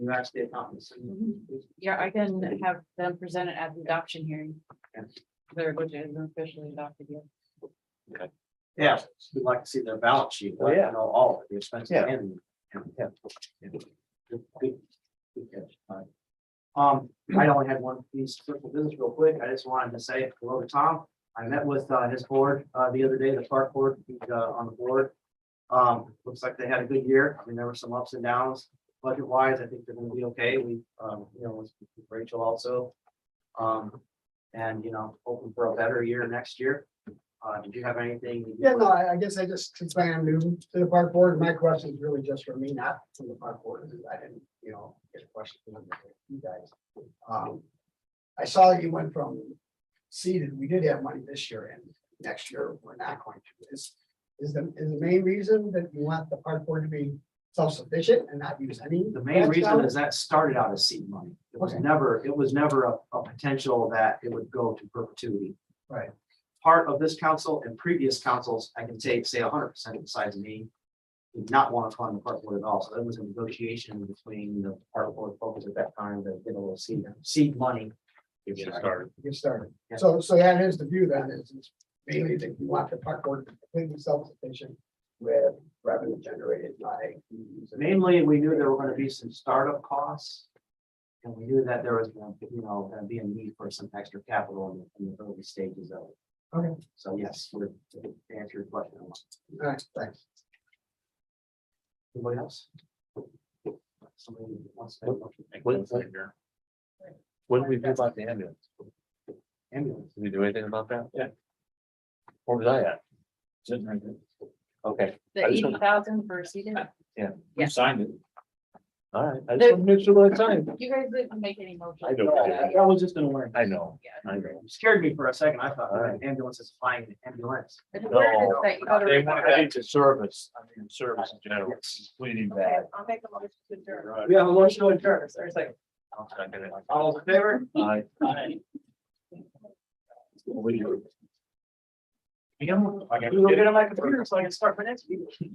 You actually accomplished. Yeah, I can have them present it at the adoption hearing. Yeah. Their budget isn't officially adopted yet. Yeah, we'd like to see their balance sheet, Oh, like, yeah. you know, all of the expenses Yeah. and. and- Yeah. Good- good- good catch. All right. Um, I only had one piece of personal business real quick. I just wanted to say hello to Tom. I met with uh, his board uh, the other day, the park board, he's uh, on the board. Um, looks like they had a good year. I mean, there were some ups and downs budget wise. I think they're gonna be okay. We, um, you know, with with Rachel also. Um, and, you know, hoping for a better year next year. Uh, did you have anything? that you Yeah, no, I, I guess I just, since I am new to the park board, my question is really just for me, not from the park board, because I didn't, you know, get a question from you guys. Um, I saw that you went from seeded, we did have money this year and next year, we're not going to. Is, is the, is the main reason that you want the park board to be self-sufficient and not use any? The main grants reason out? is that started out as seed money. It was Okay. never, it was never a, a potential that it would go to perpetuity. Right. Part of this council and previous councils, I can take, say hundred percent besides me, did not want to fund the park board at all. So that was a negotiation between the park board folks at that time that did a little seed, seed money. Give you a Right. start. to Get started. Yeah. So, so that is the view then, is is mainly that you want the park board to be completely self-sufficient with revenue generated by. fees and- Mainly, we knew there were gonna be some startup costs. And we knew that there was, gonna be, you know, gonna be a need for some extra capital in the- in the early stages of it. Okay. So yes, we're, to answer your question. I'm- All right, thanks. Anybody else? Somebody wants to make a motion? What what did we do about the ambulance? Ambulance. Did we do anything about that? Yeah. Where was I at? Sitting right there. Okay, The I just want- eighty thousand for seated, Yeah. signed it. All right, There- I just want to make sure that I signed. it. you guys didn't make any motion. I don't- I I was just gonna worry. I know, Yeah. I know. Scared me for a second. I thought uh, ambulance is flying an ambulance. But the word is that you gotta- They want to into service, I mean, service in general, Yes. we need Okay, that. I'll make a motion to adjourn. We have a motion to adjourn. Is there a second? I'll second it. All those in favor? Aye. Aye. We do. You know, I got to get on my computer so I can start my next meeting.